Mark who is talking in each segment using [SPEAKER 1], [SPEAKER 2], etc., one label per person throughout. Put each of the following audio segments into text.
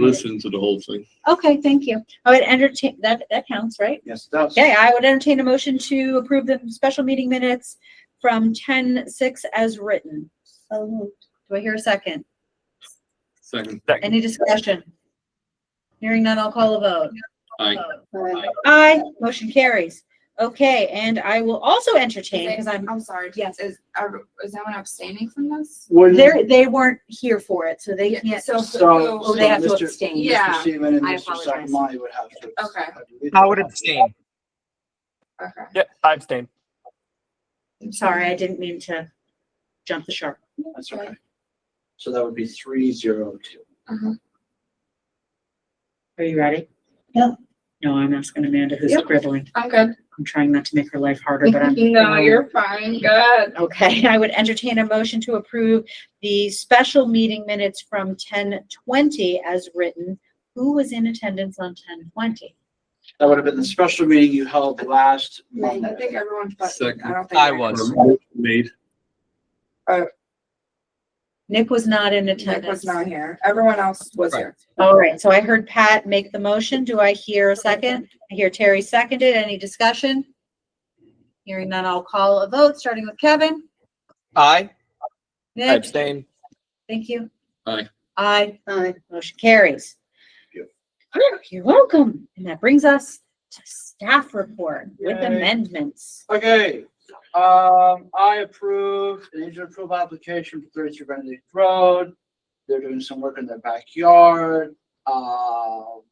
[SPEAKER 1] Listen to the whole thing.
[SPEAKER 2] Okay, thank you. I would entertain, that, that counts, right?
[SPEAKER 3] Yes, it does.
[SPEAKER 2] Okay, I would entertain a motion to approve the special meeting minutes from ten six as written. So moved. Do I hear a second?
[SPEAKER 1] Second,
[SPEAKER 2] Any discussion? Hearing none, I'll call a vote.
[SPEAKER 1] I,
[SPEAKER 2] Aye, motion carries. Okay, and I will also entertain, because I'm,
[SPEAKER 4] I'm sorry.
[SPEAKER 2] Yes.
[SPEAKER 4] Is, are, is anyone abstaining from this?
[SPEAKER 3] Wouldn't-
[SPEAKER 2] they're, they weren't here for it, so they
[SPEAKER 4] Yeah,
[SPEAKER 2] can't.
[SPEAKER 4] So,
[SPEAKER 3] So-
[SPEAKER 2] Oh,
[SPEAKER 4] so,
[SPEAKER 2] they have to
[SPEAKER 3] Mr.
[SPEAKER 2] abstain.
[SPEAKER 4] Yeah,
[SPEAKER 3] Mr. Seaman and
[SPEAKER 4] I
[SPEAKER 3] Mr.
[SPEAKER 4] apologize.
[SPEAKER 3] Sakamani would have to.
[SPEAKER 4] Okay.
[SPEAKER 5] I would abstain.
[SPEAKER 4] okay.
[SPEAKER 5] Yeah, I abstain.
[SPEAKER 2] I'm sorry, I didn't mean to jump the shark.
[SPEAKER 3] That's okay. So that would be three zero two.
[SPEAKER 6] Are you ready?
[SPEAKER 2] Yeah.
[SPEAKER 6] No, I'm asking Amanda who's
[SPEAKER 4] Yeah.
[SPEAKER 6] scribbling.
[SPEAKER 4] I'm good.
[SPEAKER 6] I'm trying not to make her life harder, but I'm.
[SPEAKER 4] No, you're fine. Good.
[SPEAKER 2] Okay, I would entertain a motion to approve the special meeting minutes from ten twenty as written. Who was in attendance on ten twenty?
[SPEAKER 3] That would have been the special meeting you held last
[SPEAKER 4] I
[SPEAKER 3] Monday.
[SPEAKER 4] think everyone's, but
[SPEAKER 1] Second.
[SPEAKER 4] I don't think.
[SPEAKER 5] I
[SPEAKER 4] everyone-
[SPEAKER 5] was.
[SPEAKER 1] made,
[SPEAKER 2] Nick was not in
[SPEAKER 4] Nick was
[SPEAKER 2] attendance.
[SPEAKER 4] not here. Everyone else was
[SPEAKER 5] Right.
[SPEAKER 4] here.
[SPEAKER 2] All right, so I heard Pat make the motion. Do I hear a second? I hear Terry seconded. Any discussion? Hearing none, I'll call a vote, starting with Kevin.
[SPEAKER 5] I
[SPEAKER 2] Nick?
[SPEAKER 5] abstain.
[SPEAKER 2] Thank you.
[SPEAKER 1] Aye.
[SPEAKER 2] Aye. Aye. Motion carries.
[SPEAKER 3] Thank
[SPEAKER 2] Whew, You're welcome. And that brings us to staff report with
[SPEAKER 3] Yay.
[SPEAKER 2] amendments.
[SPEAKER 3] Okay, um, I approve, an agent approve application for thirty-two Benedict Road. They're doing some work in their backyard. Um,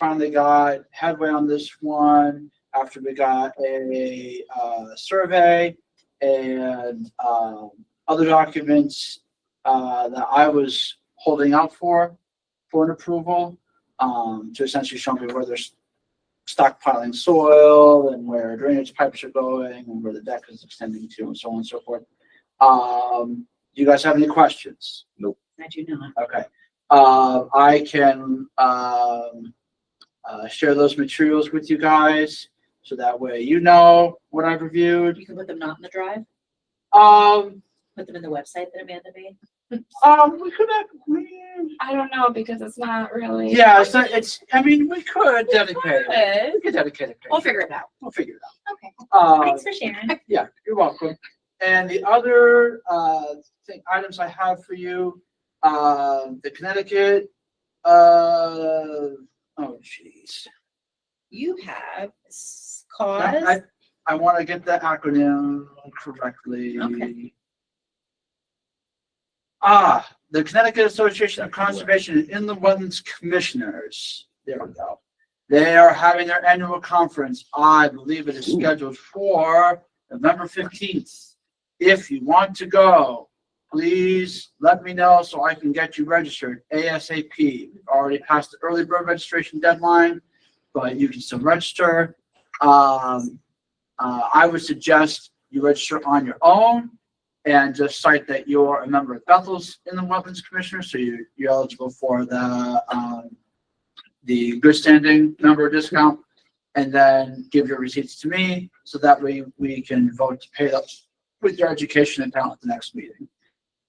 [SPEAKER 3] finally got headway on this one after we got a, uh, survey and, um, other documents, uh, that I was holding out for, for an approval, um, to essentially show me where there's stockpiling soil and where drainage pipes are going and where the deck is extending to and so on and so forth. Um, do you guys have any questions?
[SPEAKER 6] I do not.
[SPEAKER 3] Okay. Uh, I can, um, uh, share those materials with you guys so that way you know what I've reviewed.
[SPEAKER 2] You can put them not in the drive,
[SPEAKER 3] Um,
[SPEAKER 2] put them in the website that Amanda made.
[SPEAKER 3] um, we could have, we-
[SPEAKER 4] I don't know because it's not really.
[SPEAKER 3] yeah, so it's, I mean, we could dedicate, it.
[SPEAKER 4] Good.
[SPEAKER 3] we could dedicate it.
[SPEAKER 2] We'll figure it out.
[SPEAKER 3] We'll figure it out.
[SPEAKER 2] Okay.
[SPEAKER 3] Um,
[SPEAKER 2] Thanks for sharing.
[SPEAKER 3] Yeah, you're welcome. And the other, uh, thing, items I have for you, uh, the Connecticut, uh, oh jeez.
[SPEAKER 2] You have s-
[SPEAKER 3] I,
[SPEAKER 2] cause,
[SPEAKER 3] I want to get the acronym correctly.
[SPEAKER 2] Okay.
[SPEAKER 3] Ah, the Connecticut Association of Conservation and Inland Wetlands Commissioners. There we go. They are having their annual conference. I believe it is scheduled for November fifteenth. If you want to go, please let me know so I can get you registered ASAP. We've Already passed the early bird registration deadline, but you can still register. Um, uh, I would suggest you register on your own and just cite that you're a member of Bethel's Inland Wetlands Commissioner, so you, you're eligible for the, um, the good standing member discount, and then give your receipts to me, so that way we can vote to pay that with your education and talent at the next meeting.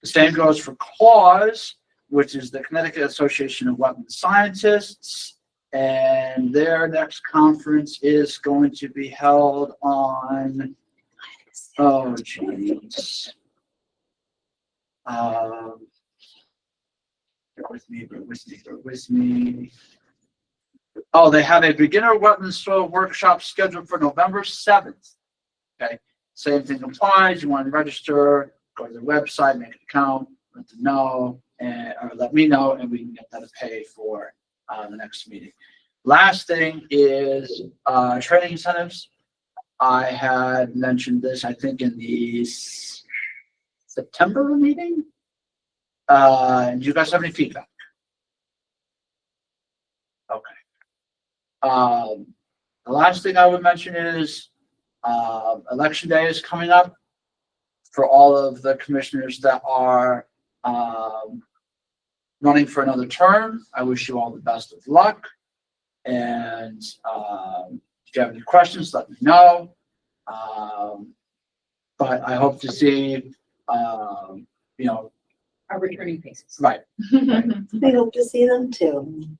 [SPEAKER 3] The same goes for CLAWS, which is the Connecticut Association of Wetland Scientists. And their next conference is going to be held on, oh jeez. Um, bear with me, bear with me, bear with me. Oh, they have a beginner wetland soil workshop scheduled for November seventh. Okay, same thing applies. You want to register, go to their website, make an account, let them know, and, or let me know, and we can get that paid for, uh, the next meeting. Last thing is, uh, training incentives. I had mentioned this, I think, in the s- September meeting. Uh, do you guys have any feedback? Okay. Um, the last thing I would mention is, um election day is coming up for all of the commissioners that are, um, running for another term. I wish you all the best of luck. And, um, if you have any questions, let me know. Um, but I hope to see, um, you know,
[SPEAKER 6] Our returning faces.
[SPEAKER 3] Right.
[SPEAKER 7] I hope to see them too.